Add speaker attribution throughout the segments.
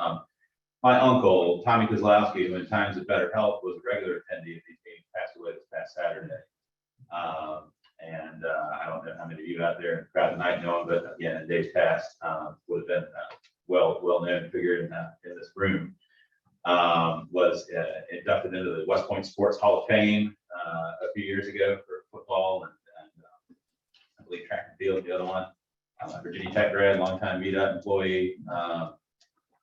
Speaker 1: Um, my uncle, Tommy Kozlowski, who in times of better health was a regular attendee of these meetings, passed away this past Saturday. Um, and, uh, I don't know how many of you out there in the crowd tonight know him, but again, in days past, um, would have been, uh, well, well-known figure in, uh, in this room um, was uh, inducted into the West Point Sports Hall of Fame uh, a few years ago for football and, and um, I believe track and field, the other one. Uh, Virginia Tech grad, longtime meetup employee. Um,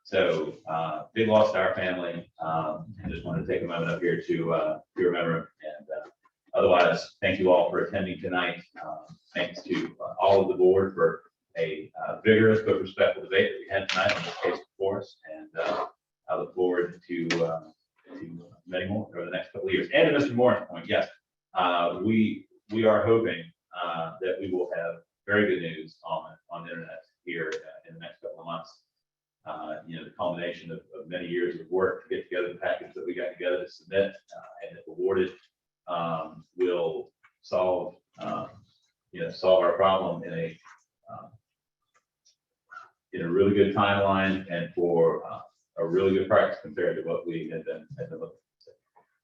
Speaker 1: so uh, big loss to our family. Um, and just wanted to take a moment up here to uh, to remember him. And uh, otherwise, thank you all for attending tonight. Um, thanks to uh, all of the board for a uh, vigorous but respectful debate that we had tonight on this case before us. And uh, I look forward to, uh, to many more over the next couple of years. And to Mr. Moore's point, yes, uh, we, we are hoping, uh, that we will have very good news on, on the internet here uh, in the next couple of months. Uh, you know, the culmination of, of many years of work to get together the package that we got together to submit, uh, and if awarded, um, will solve, um, you know, solve our problem in a, uh, in a really good timeline and for, uh, a really good price compared to what we had been, had been looking. at.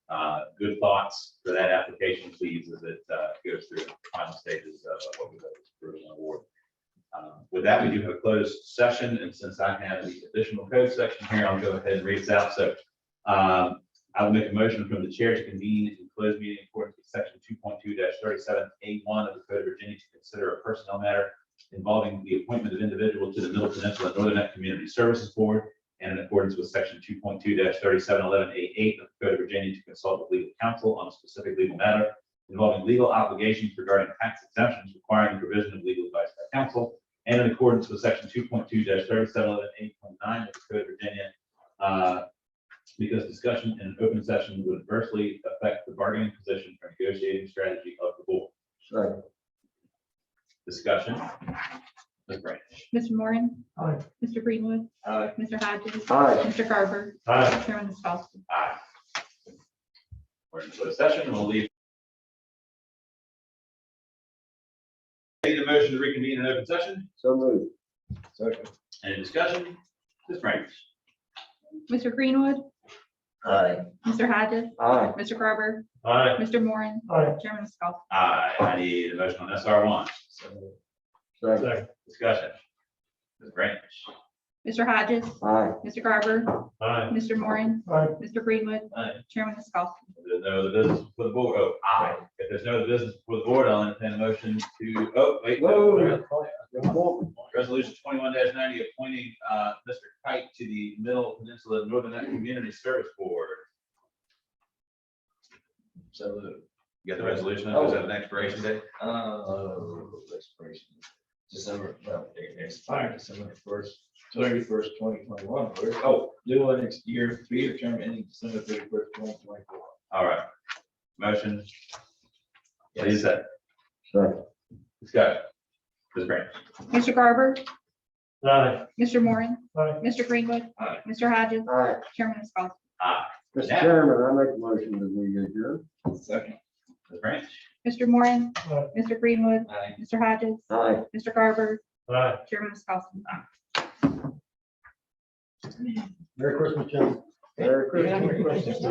Speaker 1: Uh, good thoughts for that application, please, as it, uh, goes through the final stages of what we hope is approved and award. Uh, With that, we do have a closed session, and since I have the additional code section here, I'll go ahead and read this out, so, um, I will make a motion from the chair to convene in closed meeting according to section two point two thirty-seven A one of the Code of Virginia to consider a personnel matter involving the appointment of individual to the Middle Peninsula Northern Net Community Services Board and in accordance with section two point two thirty-seven eleven A eight of the Code of Virginia to consult with legal counsel on a specific legal matter involving legal obligations regarding tax exemptions requiring the provision of legal advice by counsel and in accordance with section two point two thirty-seven eleven eight point nine of the Code of Virginia. uh, Because discussion in an open session would adversely affect the bargaining position or negotiating strategy of the board.
Speaker 2: Second.
Speaker 1: Discussion. Ms. Branch.
Speaker 3: Mr. Moran.
Speaker 2: Aye.
Speaker 3: Mr. Greenwood.
Speaker 1: Aye.
Speaker 3: Mr. Hodges.
Speaker 2: Aye.
Speaker 3: Mr. Garber.
Speaker 1: Aye.
Speaker 3: Chairman Scott.
Speaker 1: Aye. We're in closed session, and we'll leave. Need a motion to reconvene in open session,
Speaker 2: So moved. Second.
Speaker 1: any discussion? Ms. Branch?
Speaker 3: Mr. Greenwood.
Speaker 2: Aye.
Speaker 3: Mr. Hodges.
Speaker 2: Aye.
Speaker 3: Mr. Garber.
Speaker 1: Aye.
Speaker 3: Mr. Moran.
Speaker 2: Aye.
Speaker 3: Chairman Scott.
Speaker 1: Aye, I need a motion on SR one,
Speaker 2: Second.
Speaker 1: discussion. Ms. Branch?
Speaker 3: Mr. Hodges.
Speaker 2: Aye.
Speaker 3: Mr. Garber.
Speaker 1: Aye.
Speaker 3: Mr. Moran.
Speaker 2: Aye.
Speaker 3: Mr. Greenwood.
Speaker 1: Aye.
Speaker 3: Chairman Scott.
Speaker 1: If there's no other business for the board, oh, aye, if there's no other business for the board, I'll entertain a motion to, oh, wait.
Speaker 2: Whoa.
Speaker 1: Resolution twenty-one ninety, appointing, uh, Mr. Kite to the Middle Peninsula Northern Net Community Service Board.
Speaker 2: So moved.
Speaker 1: You got the resolution, is that an expiration date?
Speaker 2: Oh, expiration. December, well, it expired December first, thirty-first, twenty twenty-one. Oh, new one next year, three-year term ending December thirty-first, twenty twenty-four.
Speaker 1: All right. Motion, please, second.
Speaker 2: Second.
Speaker 1: Discussion. Ms. Branch.
Speaker 3: Mr. Garber.
Speaker 2: Aye.
Speaker 3: Mr. Moran.
Speaker 2: Aye.
Speaker 3: Mr. Greenwood.
Speaker 1: Aye.
Speaker 3: Mr. Hodges.
Speaker 4: Aye.
Speaker 3: Chairman Scott.
Speaker 1: Aye.
Speaker 4: Mr. Chairman, I make a motion that we adjourn.
Speaker 2: Second.
Speaker 1: Ms. Branch.
Speaker 3: Mr. Moran.
Speaker 2: Aye.
Speaker 3: Mr. Greenwood.
Speaker 2: Aye.
Speaker 3: Mr. Hodges.
Speaker 4: Aye.
Speaker 3: Mr. Garber.
Speaker 2: Aye.
Speaker 3: Chairman Scott.
Speaker 4: Merry Christmas, Jim. Merry Christmas.